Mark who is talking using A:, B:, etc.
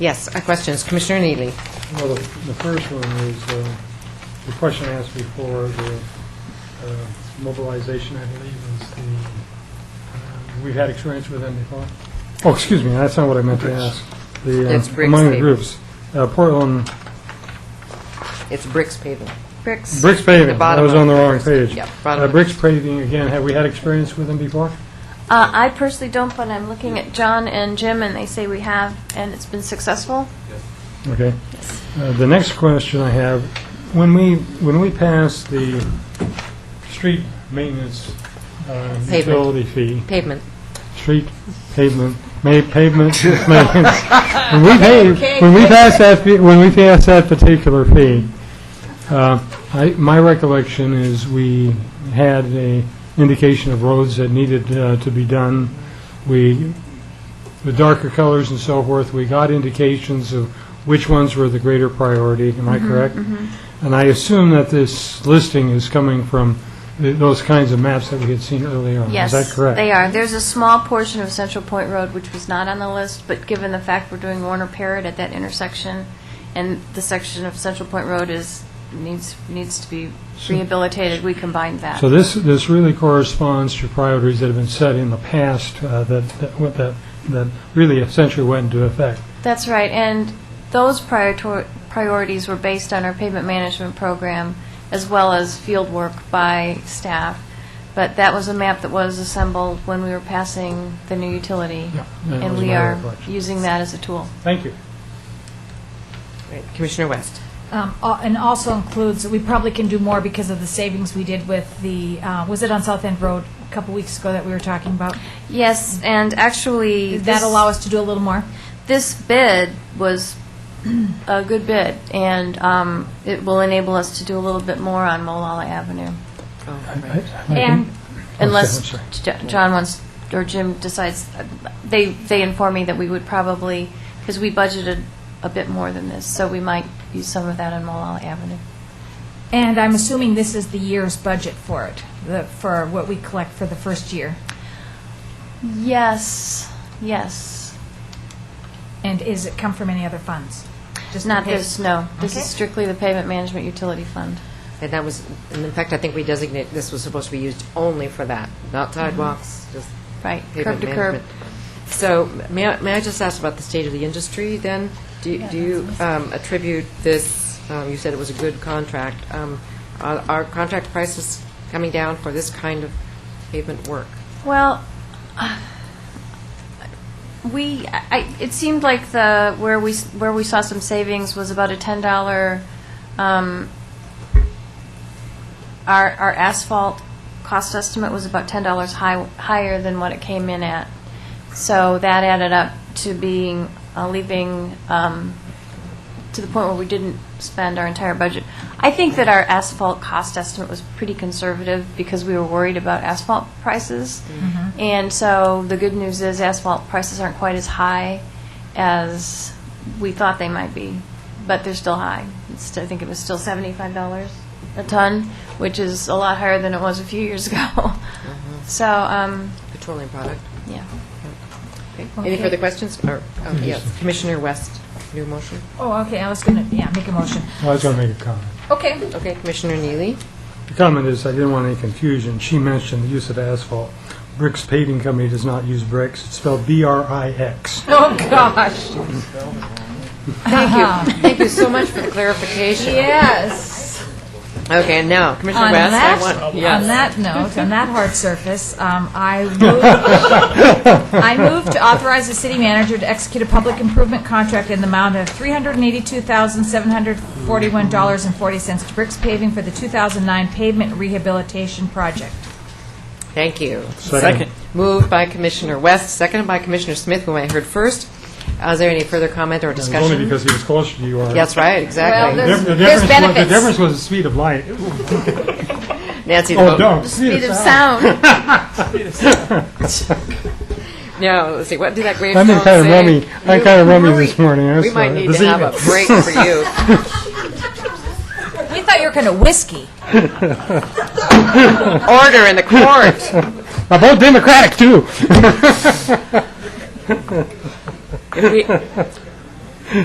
A: Yes, uh, questions, Commissioner Neely.
B: Well, the the first one is uh, the question I asked before, the uh, mobilization, I believe, is the, uh, we've had experience with them before? Oh, excuse me, that's not what I meant to ask. The,
A: It's
B: uh,
A: Briggs
B: among the
A: paving.
B: groups, uh, Portland,
A: It's bricks paving.
C: Bricks.
B: Bricks
A: The
B: Paving, I
A: bottom
B: was
A: of
B: on the
A: the
B: wrong
A: first-
B: page.
A: yeah, bottom
B: Uh,
A: of-
B: Bricks Paving, again, have we had experience with them before?
C: Uh, I personally don't, but I'm looking at John and Jim, and they say we have, and it's been successful.
B: Okay. Uh, The next question I have, when we, when we passed the street maintenance uh,
A: Pavement.
B: utility fee,
A: Pavement.
B: street pavement, ma- pavement maintenance. When we paid, when we passed that, fee- when we passed that particular fee, uh, I, my recollection is we had a indication of roads that needed uh, to be done. We, the darker colors and so forth, we got indications of which ones were the greater priority, am
C: Mm-hmm,
B: I correct? And I assume that this listing is coming from th- those kinds of maps that we had seen earlier on.
C: Yes.
B: Is that correct?
C: They are. There's a small portion of Central Point Road which was not on the list, but given the fact we're doing Warner Parrot at that intersection, and the section of Central Point Road is, needs, needs to be rehabilitated, we combined that.
B: So this, this really corresponds to priorities that have been set in the past uh, that, that- what that, that really essentially went into effect.
C: That's right, and those prior to- priorities were based on our pavement management program, as well as field work by staff, but that was a map that was assembled when we were passing the new utility,
B: Yeah, that
C: and
B: was
C: we
B: my
C: are
B: recollection.
C: using that as a tool.
B: Thank you.
A: Right, Commissioner West.
D: Um, al- And also includes, we probably can do more because of the savings we did with the, uh, was it on South End Road a couple weeks ago that we were talking about?
C: Yes, and actually...
D: Did that
C: this-
D: allow us to do a little more?
C: This bid was a good bid, and um, it will enable us to do a little bit more on Molalla Avenue,
D: And,
C: unless
B: sorry.
C: Jo- John wants, or Jim decides, they, they inform me that we would probably, because we budgeted a bit more than this, so we might use some of that on Molalla Avenue.
D: and I'm assuming this is the year's budget for it, the- for what we collect for the first year.
C: Yes, yes.
D: And is it come from any other funds? Just
C: Not
D: in case-
C: this, no. This
D: Okay.
C: is strictly the Pavement Management Utility Fund.
A: And that was, and in fact, I think we designate, this was supposed to be used only for that, not sidewalks, just
C: Right, curb
A: pavement
C: to curb.
A: management. So may I, may I just ask about the state of the industry then? Do you- do you um, attribute this, um, you said it was a good contract, um, are are contract prices coming down for this kind of pavement work?
C: Well, uh, we, I, it seemed like the, where we, s- where we saw some savings was about a $10, um, our, our asphalt cost estimate was about $10 high, higher than what it came in at. So that added up to being, uh, leaving, um, to the point where we didn't spend our entire budget. I think that our asphalt cost estimate was pretty conservative because we were worried about asphalt prices. And so the good news is asphalt prices aren't quite as high as we thought they might be, but they're still high. It's, I think it was still seventy-five dollars a ton, which is a lot higher than it was a few years ago. So, um,
A: Petroleum product?
C: yeah.
A: Any
D: Okay.
A: further questions? Or, um, yes, Commissioner West, new motion?
D: Oh, okay, I was going to, yeah, make a motion.
B: I was going to make a comment.
D: Okay.
A: Okay, Commissioner Neely?
B: The comment is, I didn't want any confusion. She mentioned the use of asphalt. Bricks Paving Company does not use bricks. It's spelled B-R-I-X.
D: Oh, gosh.
A: Thank you. Thank you so much for the clarification.
D: Yes.
A: Okay, and now, Commissioner
D: On
A: West, I
D: that,
A: want,
D: on
A: yes.
D: that note, on that hard surface, um, I move, I move to authorize the city manager to execute a public improvement contract in the amount of three hundred and eighty-two thousand, seven hundred forty-one dollars and forty cents to Bricks Paving for the two thousand nine pavement rehabilitation project.
A: Thank you.
B: Second.
A: Moved by Commissioner West, seconded by Commissioner Smith, whom I heard first. Is there any further comment or
B: It was only
A: discussion?
B: because he was closer to you. or-
A: That's right,
B: The
A: exactly.
B: diff- the
C: There's
B: difference was-
C: benefits.
B: The difference was the speed of light.
A: Nancy, the
B: Oh,
A: vote.
B: don't.
C: Speed of sound.
A: No, let's see, what did that grave
B: I'm
A: song say?
B: in kind of rummy- I'm
A: You-
B: kind of rummy
A: Marie,
B: this morning, I'm
A: We might
B: sorry.
A: need
B: This
A: to have a
B: evening.
A: break for you.
D: We thought you were going to whiskey.
A: Order in the court.
B: I vote Democratic, too.
A: We-